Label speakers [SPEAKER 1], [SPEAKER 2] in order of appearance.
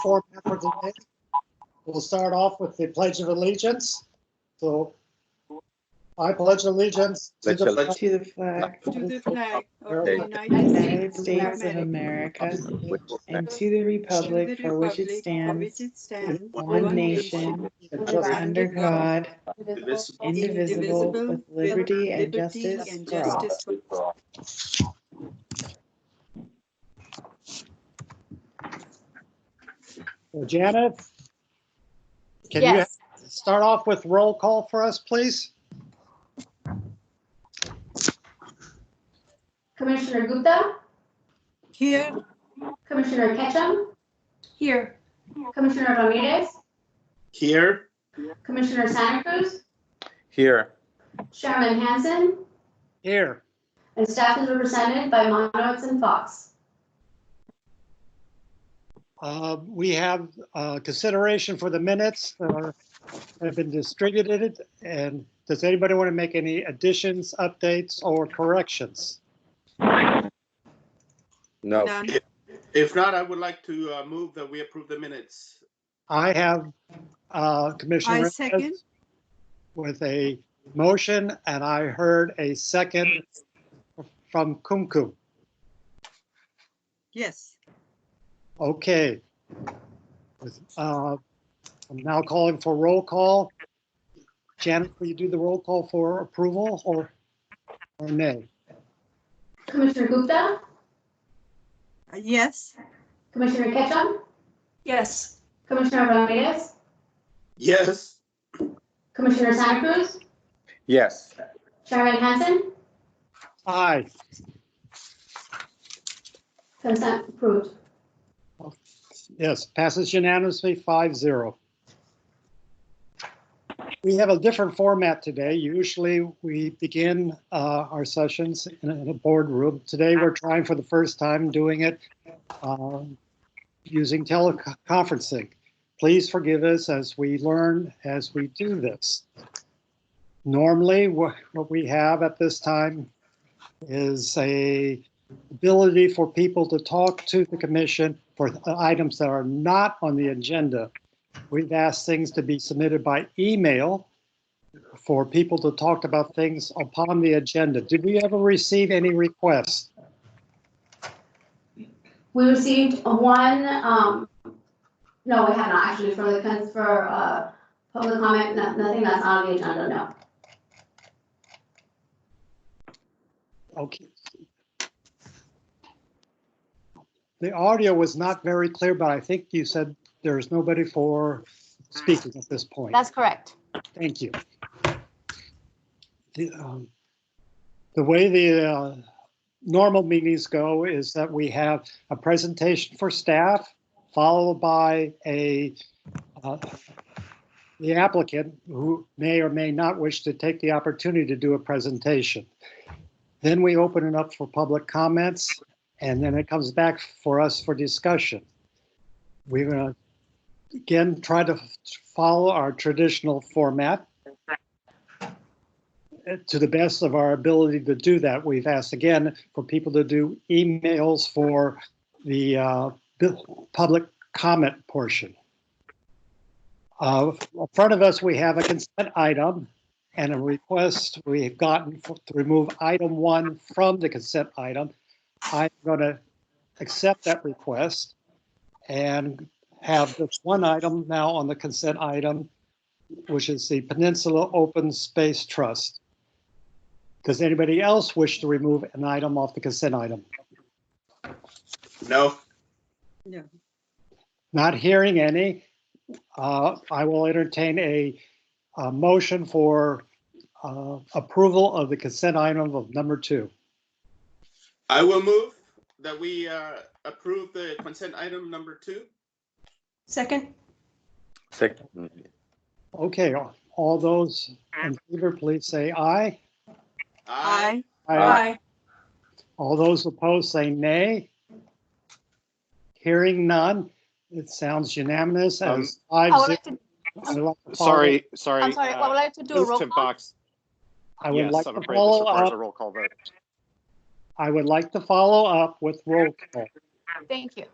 [SPEAKER 1] format for today. We'll start off with the Pledge of Allegiance. So I pledge allegiance to the flag
[SPEAKER 2] Pledge
[SPEAKER 3] To the flag
[SPEAKER 4] To the flag of
[SPEAKER 1] Okay.
[SPEAKER 4] the
[SPEAKER 3] of the
[SPEAKER 4] United
[SPEAKER 3] United States of
[SPEAKER 4] America.
[SPEAKER 3] America
[SPEAKER 2] Republic
[SPEAKER 3] and to the
[SPEAKER 4] to the
[SPEAKER 3] republic for which it
[SPEAKER 4] republic
[SPEAKER 3] stands,
[SPEAKER 4] it stands,
[SPEAKER 3] one nation,
[SPEAKER 1] and justice.
[SPEAKER 3] under God, indivisible,
[SPEAKER 4] indivisible,
[SPEAKER 3] with liberty and
[SPEAKER 4] liberty
[SPEAKER 3] justice
[SPEAKER 4] and
[SPEAKER 3] for all.
[SPEAKER 4] justice for all.
[SPEAKER 1] Janet? Can you
[SPEAKER 5] Yes,
[SPEAKER 1] start off with roll call for us, please?
[SPEAKER 5] Commissioner Gupta,
[SPEAKER 4] Here,
[SPEAKER 5] Commissioner Ketchum,
[SPEAKER 4] here,
[SPEAKER 5] Commissioner Ramirez,
[SPEAKER 2] Here.
[SPEAKER 5] Commissioner Santa Cruz,
[SPEAKER 2] Here.
[SPEAKER 5] Chairman Hansen,
[SPEAKER 1] Here.
[SPEAKER 5] and staff is represented by Monowitz and Fox.
[SPEAKER 1] Uh, We have uh, consideration for the minutes that are- have been distributed. And does anybody want to make any additions, updates, or corrections?
[SPEAKER 6] No.
[SPEAKER 4] none,
[SPEAKER 2] If not, I would like to uh, move that we approve the minutes.
[SPEAKER 1] I have uh, Commissioner.
[SPEAKER 4] I
[SPEAKER 1] Reyes
[SPEAKER 4] second.
[SPEAKER 1] With a motion, and I heard a second from Kumkum.
[SPEAKER 4] yes.
[SPEAKER 1] Okay. Uh, I'm now calling for roll call. Janet, will you do the roll call for approval or, or nay?
[SPEAKER 5] Commissioner Gupta,
[SPEAKER 4] Uh, Yes,
[SPEAKER 5] Commissioner Ketchum,
[SPEAKER 7] Yes,
[SPEAKER 5] Commissioner Ramirez,
[SPEAKER 2] Yes.
[SPEAKER 5] Commissioner Santa Cruz,
[SPEAKER 6] Yes.
[SPEAKER 5] Chairman Hansen,
[SPEAKER 1] Aye.
[SPEAKER 5] consent approved.
[SPEAKER 1] Yes, passes unanimously, five zero. We have a different format today. Usually, we begin uh, our sessions in a- in a boardroom. Today, we're trying for the first time doing it um, using teleconferencing. Please forgive us as we learn as we do this. Normally, wha- what we have at this time is a ability for people to talk to the commission for items that are not on the agenda. We've asked things to be submitted by email for people to talk about things upon the agenda. Did we ever receive any requests?
[SPEAKER 5] We received one, um, no, we have not actually for the, cons- for, uh, public comment, no- nothing that's on the agenda, no.
[SPEAKER 1] Okay. The audio was not very clear, but I think you said there is nobody for speaking at this point.
[SPEAKER 5] That's correct.
[SPEAKER 1] Thank you. The um, the way the uh, normal meetings go is that we have a presentation for staff, followed by a, uh, the applicant who may or may not wish to take the opportunity to do a presentation. Then we open it up for public comments, and then it comes back for us for discussion. We're going to again, try to follow our traditional format Uh, to the best of our ability to do that. We've asked again for people to do emails for the uh, bu- public comment portion. Uh, In front of us, we have a consent item and a request we have gotten for- to remove item one from the consent item. I'm going to accept that request and have this one item now on the consent item, which is the Peninsula Open Space Trust. Does anybody else wish to remove an item off the consent item?
[SPEAKER 2] No.
[SPEAKER 1] Not hearing any. uh, I will entertain a, a motion for uh, approval of the consent item of number two.
[SPEAKER 2] I will move that we uh, approve the consent item number two.
[SPEAKER 7] second,
[SPEAKER 6] Second.
[SPEAKER 1] Okay, all those in favor, please say aye.
[SPEAKER 4] I,
[SPEAKER 7] aye,
[SPEAKER 1] All those opposed say nay. Hearing none, it sounds unanimous
[SPEAKER 8] Um,
[SPEAKER 1] as five
[SPEAKER 9] I would
[SPEAKER 1] zero.
[SPEAKER 9] like to,
[SPEAKER 1] I would like to follow-
[SPEAKER 8] Sorry, sorry.
[SPEAKER 9] I'm sorry, I would
[SPEAKER 8] uh,
[SPEAKER 9] like to do
[SPEAKER 8] this
[SPEAKER 9] a
[SPEAKER 8] is
[SPEAKER 9] roll
[SPEAKER 8] Tim
[SPEAKER 9] call.
[SPEAKER 8] Fox.
[SPEAKER 1] I would
[SPEAKER 8] Yes,
[SPEAKER 1] like
[SPEAKER 8] I'm
[SPEAKER 1] to
[SPEAKER 8] afraid this
[SPEAKER 1] follow
[SPEAKER 8] requires a
[SPEAKER 1] up,
[SPEAKER 8] roll call vote.
[SPEAKER 1] I would like to follow up with roll call.
[SPEAKER 9] Thank you.